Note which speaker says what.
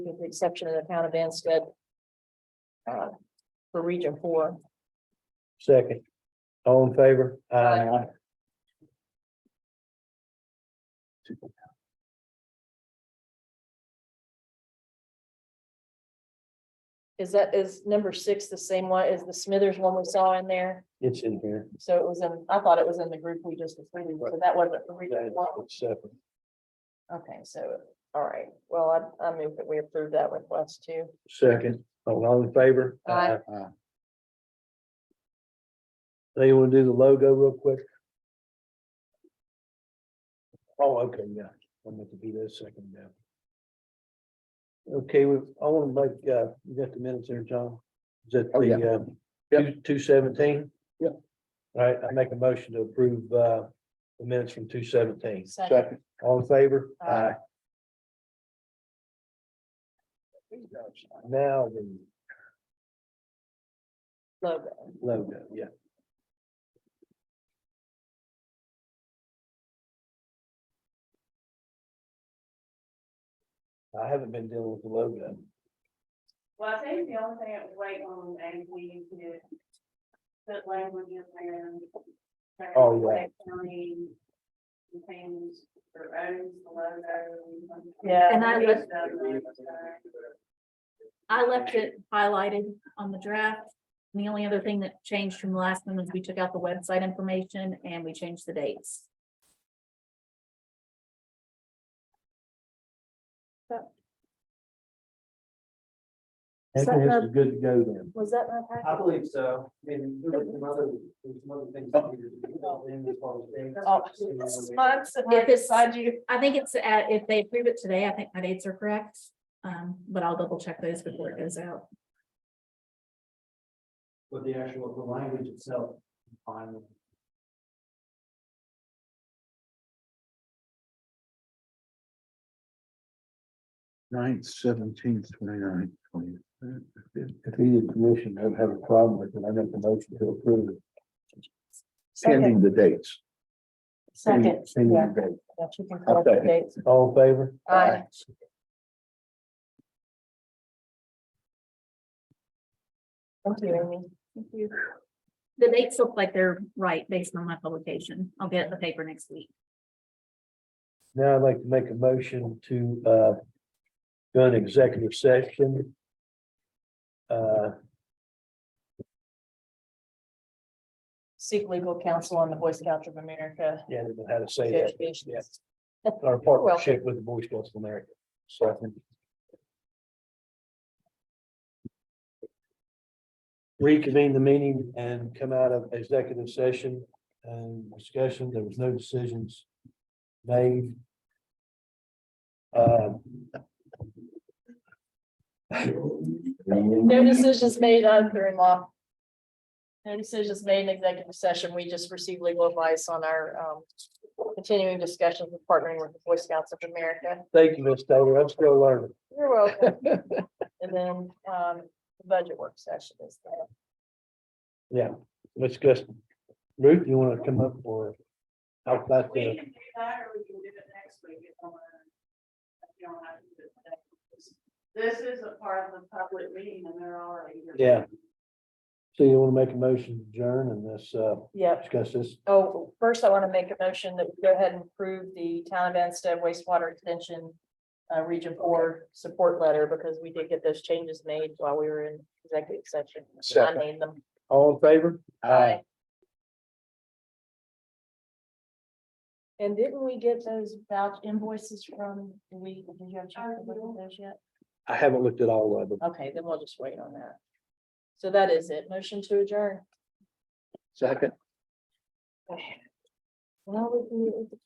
Speaker 1: with the exception of the town of Anstead. Uh, for region four.
Speaker 2: Second. All in favor?
Speaker 1: Aye. Is that, is number six the same one as the Smithers one we saw in there?
Speaker 2: It's in here.
Speaker 1: So it was in, I thought it was in the group we just approved, so that wasn't for region one.
Speaker 2: It's separate.
Speaker 1: Okay, so, all right, well, I, I move that we approve that request too.
Speaker 2: Second. All all in favor?
Speaker 1: Aye.
Speaker 2: Now you want to do the logo real quick? Oh, okay, yeah. I'm going to be there second now. Okay, we, I want to make, uh, you got the minutes there, John? Is that
Speaker 3: Oh, yeah.
Speaker 2: the, uh, two, two seventeen? Yep. All right, I make a motion to approve, uh, the minutes from two seventeen.
Speaker 1: Second.
Speaker 3: Second.
Speaker 2: All in favor?
Speaker 1: Aye.
Speaker 2: Now the
Speaker 1: Logo.
Speaker 2: logo, yeah. I haven't been dealing with the logo.
Speaker 4: Well, I think the only thing that was waiting on is we could put language in there.
Speaker 2: Oh, yeah.
Speaker 4: County. Things for owns, the logo.
Speaker 1: Yeah.
Speaker 5: And I
Speaker 4: It's
Speaker 5: left,
Speaker 4: done, uh,
Speaker 5: I left it highlighted on the draft. And the only other thing that changed from the last one was we took out the website information and we changed the dates.
Speaker 1: Is that
Speaker 2: Anthony, this
Speaker 1: the-
Speaker 2: is good to go then.
Speaker 1: Was that my
Speaker 6: I
Speaker 1: packet?
Speaker 6: believe so. I mean, there were some other, there were some other things. that needed to be built in as far as dates.
Speaker 1: Oh, I'm sitting right
Speaker 5: If it's-
Speaker 1: beside you.
Speaker 5: I think it's, at- if they approve it today, I think my dates are correct. Um, but I'll double check those before it goes out.
Speaker 6: But the actual, the language itself. fine.
Speaker 3: Ninth, seventeenth, twenty-nine, twenty.
Speaker 2: If either commission don't have a problem with it, I make the motion to approve it.
Speaker 1: Second.
Speaker 3: Pending the dates.
Speaker 1: Second.
Speaker 3: Pending
Speaker 1: Yeah,
Speaker 3: the date.
Speaker 1: yeah, you can correct the
Speaker 3: Okay.
Speaker 1: dates.
Speaker 2: All in favor?
Speaker 1: Aye. Thank you, Amy.
Speaker 5: Thank you. The dates look like they're right based on my publication. I'll get it in the paper next week.
Speaker 2: Now I'd like to make a motion to, uh, go an executive session. Uh,
Speaker 1: Seek legal counsel on the Boy Scouts of America.
Speaker 2: yeah, I don't know how to say that.
Speaker 1: Association.
Speaker 2: Our partnership with the Boy Scouts of America. Second. Reconvene the meeting and come out of executive session and discussion. There was no decisions made. Um,
Speaker 1: No decisions made on hearing law. No decisions made in executive session. We just received legal advice on our um continuing discussions with partnering with the Boy Scouts of America.
Speaker 2: Thank you, Ms. Taylor. I'm still learning.
Speaker 1: You're welcome. And then um the budget work session is there.
Speaker 2: Let's just, Ruth, you want to come up or? How about
Speaker 4: We
Speaker 2: the,
Speaker 4: can do that, or we can do it next week if you want. If you don't have to do it today. This is a part of the public meeting and they're already.
Speaker 2: Yeah. so you want to make a motion to adjourn and this, uh,
Speaker 1: Yep.
Speaker 2: discuss this?
Speaker 1: Oh, first I want to make a motion that we go ahead and approve the town of Anstead wastewater extension. Uh, region four support letter because we did get those changes made while we were in executive session. I
Speaker 3: Second.
Speaker 1: made them.
Speaker 2: All in favor?
Speaker 1: Aye. And didn't we get those vouch invoices from, did we, did you have a chance to look at those yet?
Speaker 2: I haven't looked at all of them.
Speaker 1: Okay, then we'll just wait on that. So that is it. Motion to adjourn.
Speaker 3: Second.
Speaker 1: Well, we can,